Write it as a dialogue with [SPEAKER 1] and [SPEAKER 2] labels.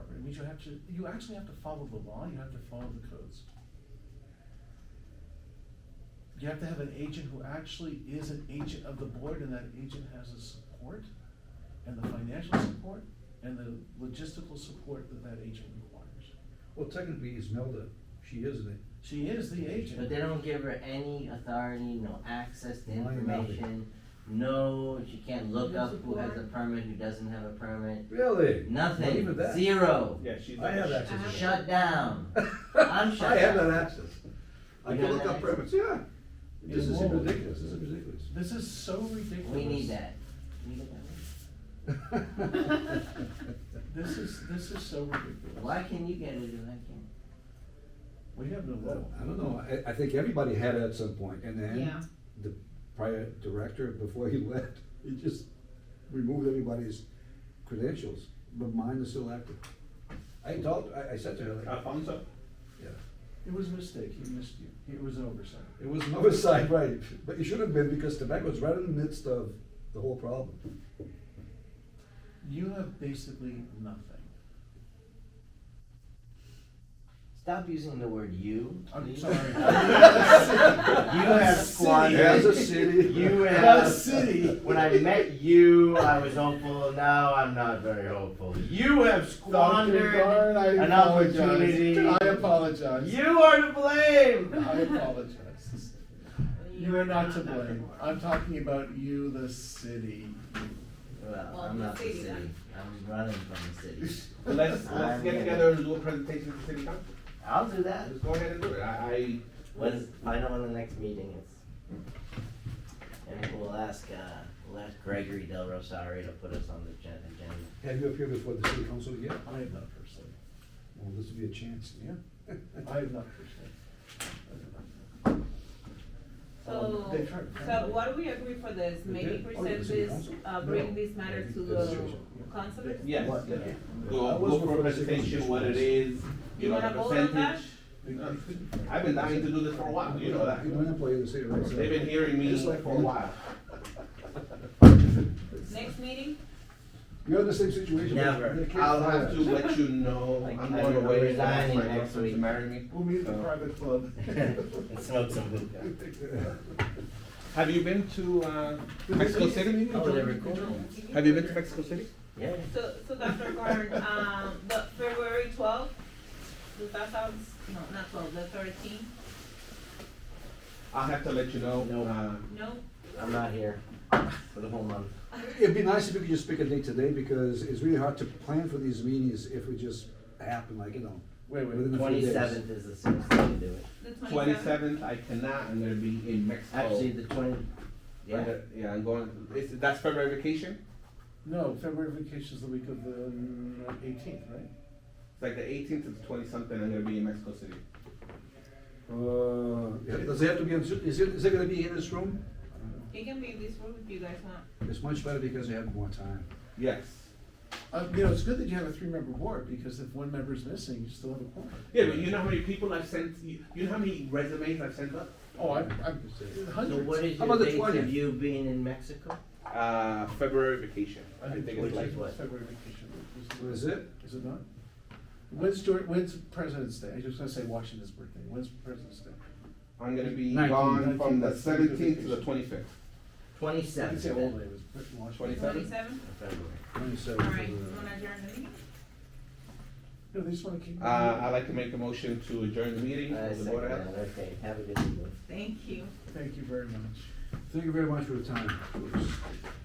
[SPEAKER 1] means you have to, you actually have to follow the law, you have to follow the codes. You have to have an agent who actually is an agent of the board, and that agent has the support, and the financial support, and the logistical support that that agent requires.
[SPEAKER 2] Well, technically Ismelda, she is the,
[SPEAKER 1] She is the agent.
[SPEAKER 3] But they don't give her any authority, no access to
[SPEAKER 2] Why not?
[SPEAKER 3] information, no, she can't look
[SPEAKER 1] No
[SPEAKER 3] up who has a
[SPEAKER 1] support.
[SPEAKER 3] permit, who doesn't have a permit,
[SPEAKER 2] really? Not
[SPEAKER 3] nothing,
[SPEAKER 2] even that.
[SPEAKER 3] zero.
[SPEAKER 4] Yeah, she's.
[SPEAKER 2] I have
[SPEAKER 4] like-
[SPEAKER 2] access.
[SPEAKER 3] Shut down. I'm shut
[SPEAKER 2] I have
[SPEAKER 3] down.
[SPEAKER 2] that access. I
[SPEAKER 3] You
[SPEAKER 2] can
[SPEAKER 3] have
[SPEAKER 2] look
[SPEAKER 3] that
[SPEAKER 2] up
[SPEAKER 3] access?
[SPEAKER 2] permits, yeah. This is
[SPEAKER 1] Whoa.
[SPEAKER 2] ridiculous, this is ridiculous.
[SPEAKER 1] This is so ridiculous.
[SPEAKER 3] We need that. We need that.
[SPEAKER 1] This is, this is so ridiculous.
[SPEAKER 3] Why can you get it and I can't?
[SPEAKER 1] We have no law.
[SPEAKER 2] I don't know, I, I think everybody had it at some point, and then
[SPEAKER 5] Yeah,
[SPEAKER 2] the prior director, before he left, he just removed everybody's credentials, but mine is still active. I told, I, I said to her, like,
[SPEAKER 4] Alfonso?
[SPEAKER 2] yeah,
[SPEAKER 1] It was a mistake, he missed you, it was an oversight.
[SPEAKER 2] it was an oversight, right, but it should have been, because tobacco's right in the midst of the whole problem.
[SPEAKER 1] You have basically nothing.
[SPEAKER 3] Stop using the word you.
[SPEAKER 1] I'm
[SPEAKER 3] please.
[SPEAKER 1] sorry.
[SPEAKER 3] You have squandered.
[SPEAKER 2] As a city.
[SPEAKER 3] You
[SPEAKER 1] The
[SPEAKER 3] have.
[SPEAKER 1] city.
[SPEAKER 3] When I met you, I was hopeful. Now I'm not very hopeful. You have squandered.
[SPEAKER 1] Darn, I
[SPEAKER 3] an
[SPEAKER 1] apologize.
[SPEAKER 3] opportunity.
[SPEAKER 1] I apologize.
[SPEAKER 3] You are to
[SPEAKER 1] I
[SPEAKER 3] blame.
[SPEAKER 1] apologize. You are not to blame. I'm talking about you, the city.
[SPEAKER 3] Well,
[SPEAKER 5] Well,
[SPEAKER 3] I'm
[SPEAKER 5] the
[SPEAKER 3] not the
[SPEAKER 5] city
[SPEAKER 3] city.
[SPEAKER 5] then.
[SPEAKER 3] I'm running from the city.
[SPEAKER 4] Let's, let's
[SPEAKER 3] I'm
[SPEAKER 4] get
[SPEAKER 3] gonna-
[SPEAKER 4] together and do a presentation to the city council.
[SPEAKER 3] I'll do that.
[SPEAKER 4] Let's go ahead and do it. I,
[SPEAKER 3] Let's find out when the next meeting is. And we'll ask, uh, we'll ask Gregory Del Rosario to put us on the gen- agenda.
[SPEAKER 2] Have you appeared before the city council yet?
[SPEAKER 1] I have not personally.
[SPEAKER 2] Well, this would be a chance, yeah.
[SPEAKER 1] I have not personally.
[SPEAKER 5] so,
[SPEAKER 1] They tried-
[SPEAKER 5] so what we agree for this,
[SPEAKER 2] They
[SPEAKER 5] maybe
[SPEAKER 2] did? Oh, yeah,
[SPEAKER 5] present
[SPEAKER 2] it's in
[SPEAKER 5] this,
[SPEAKER 2] council?
[SPEAKER 5] uh,
[SPEAKER 2] No.
[SPEAKER 5] bring this matter to the
[SPEAKER 2] Administration, yeah.
[SPEAKER 5] council?
[SPEAKER 4] I, yes,
[SPEAKER 2] What?
[SPEAKER 4] yes.
[SPEAKER 2] I
[SPEAKER 4] Go,
[SPEAKER 2] was
[SPEAKER 4] go for a
[SPEAKER 2] for city
[SPEAKER 4] presentation,
[SPEAKER 2] council.
[SPEAKER 4] what it is, you
[SPEAKER 5] You
[SPEAKER 4] know, the
[SPEAKER 5] wanna vote on that?
[SPEAKER 4] percentage. I've been dying to do this for a while, you know that.
[SPEAKER 2] You're an employee of the city, right? so-
[SPEAKER 4] They've been hearing me
[SPEAKER 2] Just
[SPEAKER 4] for a
[SPEAKER 2] like you.
[SPEAKER 4] while.
[SPEAKER 5] Next meeting?
[SPEAKER 2] You're in the same situation.
[SPEAKER 3] Never.
[SPEAKER 2] They can't
[SPEAKER 4] I'll
[SPEAKER 2] fire
[SPEAKER 4] have to
[SPEAKER 2] us.
[SPEAKER 4] let you know,
[SPEAKER 3] Like,
[SPEAKER 4] I'm
[SPEAKER 3] I don't
[SPEAKER 4] going
[SPEAKER 3] know,
[SPEAKER 4] away, for my
[SPEAKER 3] resigning next
[SPEAKER 4] girlfriend to
[SPEAKER 3] week.
[SPEAKER 4] marry me.
[SPEAKER 1] We'll meet at the
[SPEAKER 4] So-
[SPEAKER 1] private club.
[SPEAKER 3] And smoke some hookah.
[SPEAKER 4] Have you been to, uh,
[SPEAKER 1] Did they
[SPEAKER 4] Mexico
[SPEAKER 1] leave?
[SPEAKER 4] City?
[SPEAKER 3] Oh, they're recording.
[SPEAKER 4] Have you been to Mexico City?
[SPEAKER 3] Yeah.
[SPEAKER 5] So, so Dr. Gordon, um, the February twelfth, does that sound, no, not twelve, the thirteenth,
[SPEAKER 4] I'll have to let you know,
[SPEAKER 3] No.
[SPEAKER 4] uh,
[SPEAKER 5] no?
[SPEAKER 3] I'm not here for the whole month.
[SPEAKER 2] It'd be nice if we could just pick a date today, because it's really hard to plan for these meetings if it just happen, like, you know.
[SPEAKER 1] Wait, wait.
[SPEAKER 2] within a few days.
[SPEAKER 3] Twenty-seventh is the soonest I can do it.
[SPEAKER 5] The twenty-seventh?
[SPEAKER 4] twenty-seventh, I cannot, I'm gonna be in Mexico.
[SPEAKER 3] uh, Actually, the twenty, yeah,
[SPEAKER 4] Yeah, yeah, I'm going, is, that's February vacation?
[SPEAKER 1] No, February vacation is the week of the eighteenth, right?
[SPEAKER 4] It's like the eighteenth to the twenty-something, I'm gonna be in Mexico City.
[SPEAKER 2] Uh, yeah, does it have to be, on Zoom? is it, is it gonna be in this room?
[SPEAKER 5] It can be this room if you guys want.
[SPEAKER 2] It's much better because they have more time.
[SPEAKER 4] Yes.
[SPEAKER 1] Uh, you know, it's good that you have a three-member board, because if one member is missing, you still have a quorum.
[SPEAKER 4] Yeah, but you know how many people I've sent, you, you know how many resumes I've sent up?
[SPEAKER 1] Oh, I, I,
[SPEAKER 3] so what
[SPEAKER 1] hundreds.
[SPEAKER 3] is
[SPEAKER 2] How
[SPEAKER 3] your
[SPEAKER 2] about the
[SPEAKER 3] date
[SPEAKER 2] 20th?
[SPEAKER 3] of you being in Mexico?
[SPEAKER 4] Uh, February vacation, I
[SPEAKER 1] think
[SPEAKER 4] think it's like,
[SPEAKER 3] what?
[SPEAKER 1] February vacation. week,
[SPEAKER 2] What is it?
[SPEAKER 1] Is it not? When's George, when's President's Day? I was just gonna say Washington's birthday. When's President's Day?
[SPEAKER 4] I'm gonna be
[SPEAKER 2] Nineteen.
[SPEAKER 4] gone from the
[SPEAKER 1] Nineteen, that's-
[SPEAKER 4] seventeenth to the twenty-fifth.
[SPEAKER 1] I can
[SPEAKER 3] Twenty-seventh
[SPEAKER 1] say all day was
[SPEAKER 4] Twenty-
[SPEAKER 1] Washington.
[SPEAKER 5] Twenty-seventh?
[SPEAKER 3] of February.
[SPEAKER 2] Twenty-seventh.
[SPEAKER 5] Alright, you wanna adjourn the meeting?
[SPEAKER 1] No, they just wanna keep.
[SPEAKER 4] Uh, I'd like to make a motion to adjourn the meeting
[SPEAKER 3] Uh,
[SPEAKER 4] of the
[SPEAKER 3] second
[SPEAKER 4] Board of Health.
[SPEAKER 3] round, okay, have a good evening.
[SPEAKER 5] Thank you.
[SPEAKER 1] Thank you very much.
[SPEAKER 2] Thank you very much for your time.